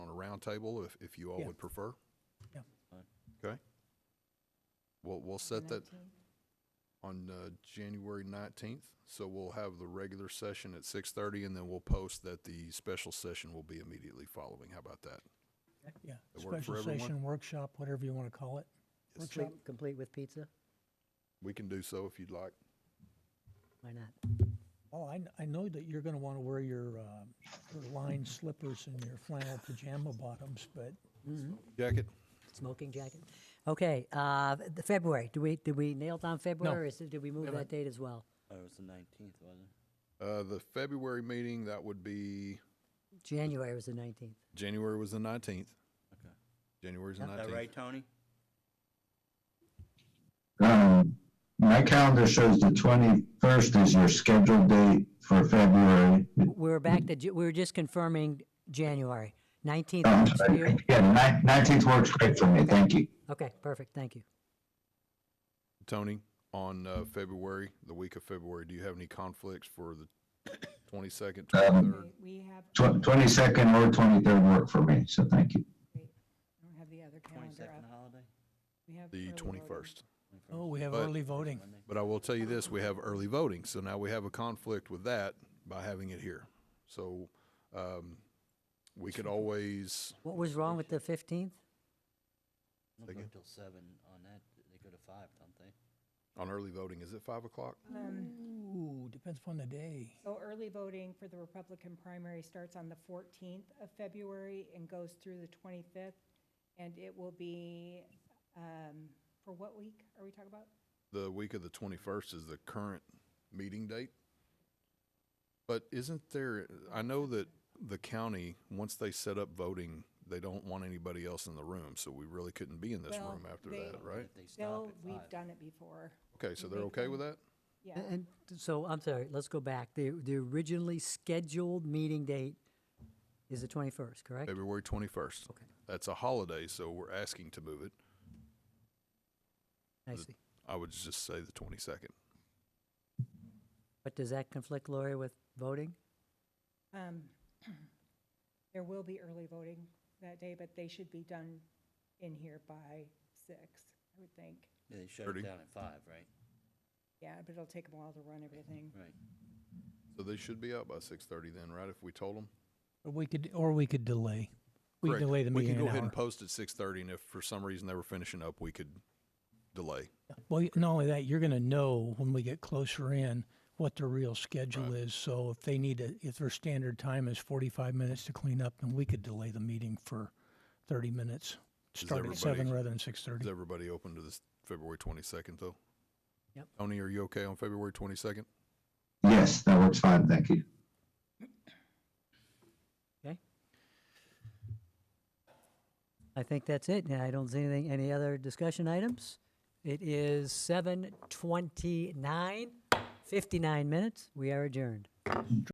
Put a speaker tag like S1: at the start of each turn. S1: roundtable if, if you all
S2: Yeah.
S1: would prefer.
S2: Yeah.
S1: Okay. We'll, we'll set that on uh, January 19th. So we'll have the regular session at 6:30 and then we'll post that the special session will be immediately following. How about that?
S2: Yeah,
S1: That work for
S2: special
S1: everyone?
S2: session, workshop, whatever you want to call it.
S3: Complete, complete with pizza?
S1: We can do so if you'd like.
S3: Why not?
S2: Oh, I, kn- I know that you're going to want to wear your, uh, your lined slippers and your flannel pajama bottoms, but
S1: Jacket?
S3: Smoking jacket? Okay, uh, the February, do we, did we nail down February? Or is it- did we move that date as well?
S4: Oh, it was the nineteenth, wasn't it?
S1: Uh, the February meeting, that would be,
S3: January was the nineteenth.
S1: January was the 19th.
S4: Okay.
S1: January's the
S3: Is
S4: Is that
S1: 19th.
S4: right, Tony?
S5: Um, my calendar shows the twenty-first is your scheduled date for February. Um,
S3: We were back to, Ju- we were just confirming January. Nineteenth
S5: Oh, I'm
S3: works for you?
S5: sorry. Yeah, nineteenth works great for me, thank you.
S3: Okay, perfect, thank you.
S1: Tony, on uh, February, the week of February, do you have any conflicts for the 22nd, 23rd?
S6: We- We have,
S5: Tw- Twenty-second or twenty-third work for me, so thank you.
S6: I don't have the other calendar
S4: Twenty-second
S6: up.
S4: holiday?
S6: We have
S1: The
S6: early voting.
S1: 21st.
S2: oh, we have
S1: But-
S2: early voting.
S4: Monday.
S1: But I will tell you this, we have early voting, so now we have a conflict with that by having it here. So um, we could always,
S3: What was wrong with the fifteenth?
S4: They don't go till seven on that, they go to five, don't they?
S1: on early voting, is it 5 o'clock?
S6: Um,
S2: Ooh, depends upon the day.
S6: So early voting for the Republican primary starts on the 14th of February and goes through the 25th. And it will be, um, for what week are we talking about?
S1: The week of the 21st is the current meeting date. But isn't there, I know that the county, once they set up voting, they don't want anybody else in the room, so we really couldn't be in this
S6: Well,
S1: room after
S6: they-
S1: that,
S4: But
S1: right?
S4: If they stop
S6: Bill,
S4: at
S6: we've
S4: five.
S6: done it before.
S1: Okay, so
S6: we
S1: they're
S6: make
S1: okay
S6: them-
S1: with that?
S6: Yeah.
S3: And so, I'm sorry, let's go back. The, the originally scheduled meeting date is the twenty-first, correct?
S1: February 21st.
S3: Okay.
S1: That's a holiday, so we're asking to move it.
S3: I see.
S1: I would just say the 22nd.
S3: But does that conflict, Lori, with voting?
S6: Um, There will be early voting that day, but they should be done in here by six, I would think.
S4: Yeah, They shut
S1: 30.
S4: it down at five, right?
S6: Yeah, but it'll take them a while to run everything.
S4: Right.
S1: So they should be out by 6:30 then, right? If we told them?
S2: Or we could, or we could delay. We could delay the
S1: We
S2: meeting
S1: can
S2: an
S1: go ahead
S2: hour.
S1: and post at 6:30, and if for some reason they were finishing up, we could delay.
S2: Well, y- not only that, you're going to know when we get closer in what their real schedule is. So if they need to, if their standard time is 45 minutes to clean up, then we could delay the meeting for 30 minutes. Start at
S1: everybody-
S2: 7 rather than
S1: Is
S2: 6:30.
S1: everybody open to this February 22nd, though?
S3: Yep.
S1: Tony, are you okay on February 22nd?
S5: Yes, that works fine, thank you.
S3: I think that's it, and I don't see anything, any other discussion items. It is seven twenty-nine, fifty-nine minutes, we are adjourned.